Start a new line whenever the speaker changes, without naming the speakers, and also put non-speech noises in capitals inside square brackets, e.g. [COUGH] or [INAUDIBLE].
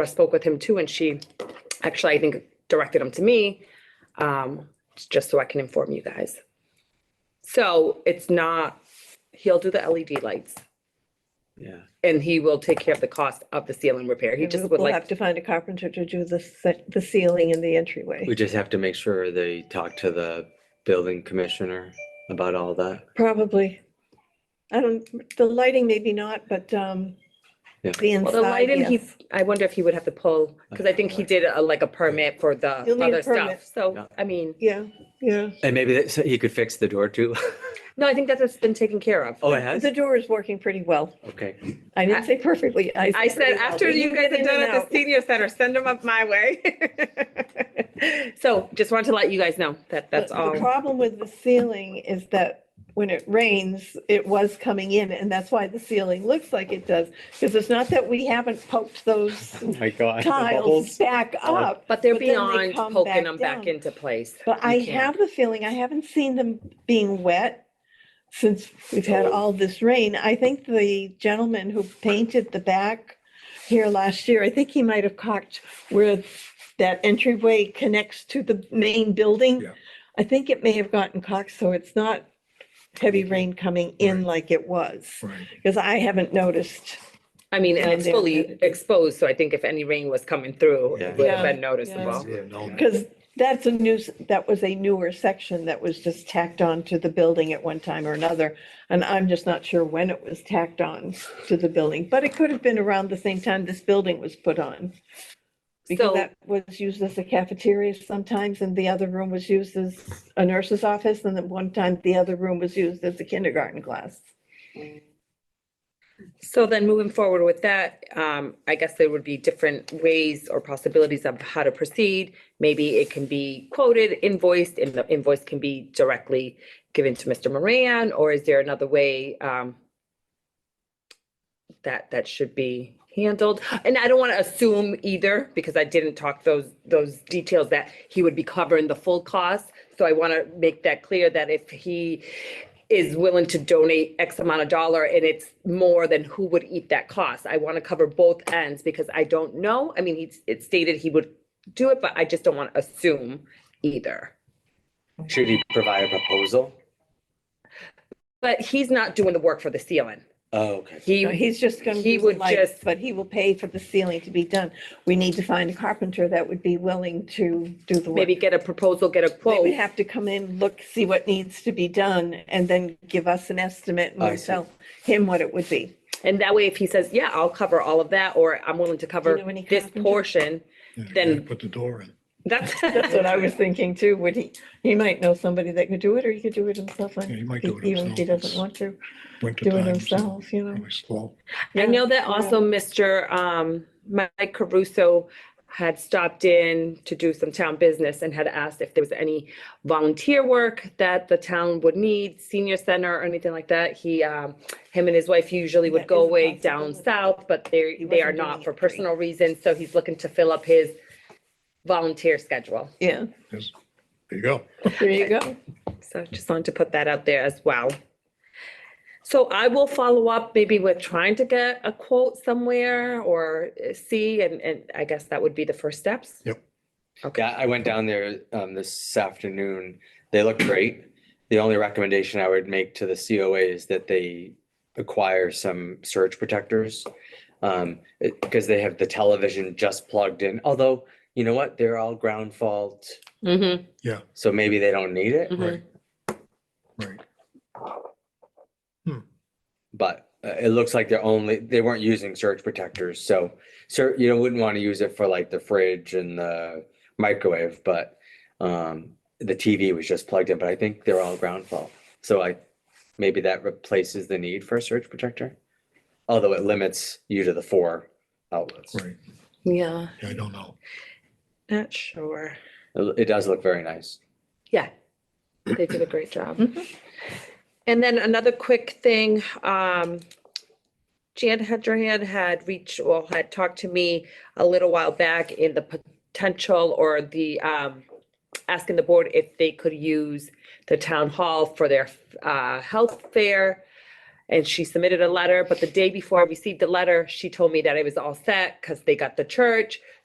I spoke with him too, and she actually, I think, directed him to me, um, just so I can inform you guys. So it's not, he'll do the LED lights
Yeah,
and he will take care of the cost of the ceiling repair. He
And
just
we-
would
We'll have
like,
to find a carpenter to do the, ce- the ceiling and the entryway.
we just have to make sure they talk to the building commissioner about all that.
Probably. I don't, the lighting maybe not, but, um,
Yeah.
the
well, the
inside,
lighting, he,
yes.
I wonder if he would have to pull, because I think he did a, like a permit for the
You'll need a
other
permit.
stuff. So,
Yeah.
I mean,
Yeah, yeah.
And maybe that, so he could fix the door too. [LAUGHS]
no, I think that's been taken care of.
Oh, it has?
The door is working pretty well.
Okay.
I didn't say perfectly.
I
pretty
said,
well.
after
We
you
can
guys
get
are
in
done
and
at
out.
the senior center, send them up my [LAUGHS] way. So just wanted to let you guys know that that's
The- The
all.
problem with the ceiling is that when it rains, it was coming in, and that's why the ceiling looks like it does. Because it's not that we haven't poked those
[LAUGHS] Oh My God.
tiles back up,
But they're
But then they
beyond
come
poking
back
them back
down.
into place.
but
You
I
can't.
have the feeling, I haven't seen them being wet since we've had all this rain. I think the gentleman who painted the back here last year, I think he might have cocked where that entryway connects to the main building.
Yeah.
I think it may have gotten cocked, so it's not heavy rain coming in like it was,
Right.
because I haven't noticed.
I mean, and
Yeah,
it's
they're-
fully exposed, so I think if any rain was coming through,
Yeah.
it would have
Yeah,
been noticeable.
Yeah, no,
Because that's a new, that was a newer section that was just tacked on to the building at one time or another. And I'm just not sure when it was tacked on to the building, but it could have been around the same time this building was put on. Because
So,
that was used as a cafeteria sometimes and the other room was used as a nurse's office. And then one time the other room was used as a kindergarten class.
so then moving forward with that, um, I guess there would be different ways or possibilities of how to proceed. Maybe it can be quoted, invoiced, and the invoice can be directly given to Mr. Moran, or is there another way, um, that, that should be handled? And I don't want to assume either, because I didn't talk those, those details that he would be covering the full cost. So I want to make that clear that if he is willing to donate X amount of dollar and it's more than who would eat that cost, I want to cover both ends because I don't know. I mean, he's, it stated he would do it, but I just don't want to assume either.
Should he provide a proposal?
But he's not doing the work for the ceiling.
Oh, okay.
He,
No, he's just gonna.
he
use the
would
lights,
just-
But he will pay for the ceiling to be done. We need to find a carpenter that would be willing to do the work.
maybe get a proposal, get a
They would
quote.
have to come in, look, see what needs to be done, and then give us an estimate and
I
we'll
see.
tell him what it would be.
And that way, if he says, yeah, I'll cover all of that, or I'm willing to cover
know any
this
carpenter?
portion,
you gotta
then-
Put the door in.
that's.
[LAUGHS] That's what I was thinking too. Would he, he might know somebody that could do it, or he could do it himself. like,
Yeah, he might do it
Even if he
himself.
doesn't want to
Winter
do it
times, it's
himself, you know.
Really slow.
I
Yeah,
know that also Mr. um, Mike Caruso had stopped in to do some town business and had asked if there was any volunteer work that the town would need, senior center or anything like that. He, um, him and his wife usually would
That
go
is a
away down
possibility.
south, but they,
He
they are
wasn't doing
not
it
for
free.
personal reasons. So he's looking to fill up his volunteer schedule.
Yeah,
There's- There you go.
there you go.
So just wanted to put that out there as well. So I will follow up maybe with trying to get a quote somewhere or uh, see, and, and I guess that would be the first steps.
Yeah, I went down there um this afternoon. They look great. The only recommendation I would make to the COA is that they acquire some surge protectors. Um, it- because they have the television just plugged in, although, you know what, they're all ground fault,
Mm-hmm.
so maybe they don't need it,
Right. Right.
but uh, it looks like they're only, they weren't using surge protectors, so so you know, wouldn't want to use it for like the fridge and the microwave, but um, the TV was just plugged in, but I think they're all ground fault. So I, maybe that replaces the need for a surge protector, although it limits you to the four outlets. It
Right.
Yeah,
Yeah, I don't know.
not sure.
it does look very nice.
Yeah, they did a great job.
Mhm.
And then another quick thing, um, Jan Hedrahan had reached, or had talked to me a little while back in the potential or the, um, asking the board if they could use the town hall for their, uh, health fair And she submitted a letter, but the day before I received the letter, she told me that I was all set because they got the church.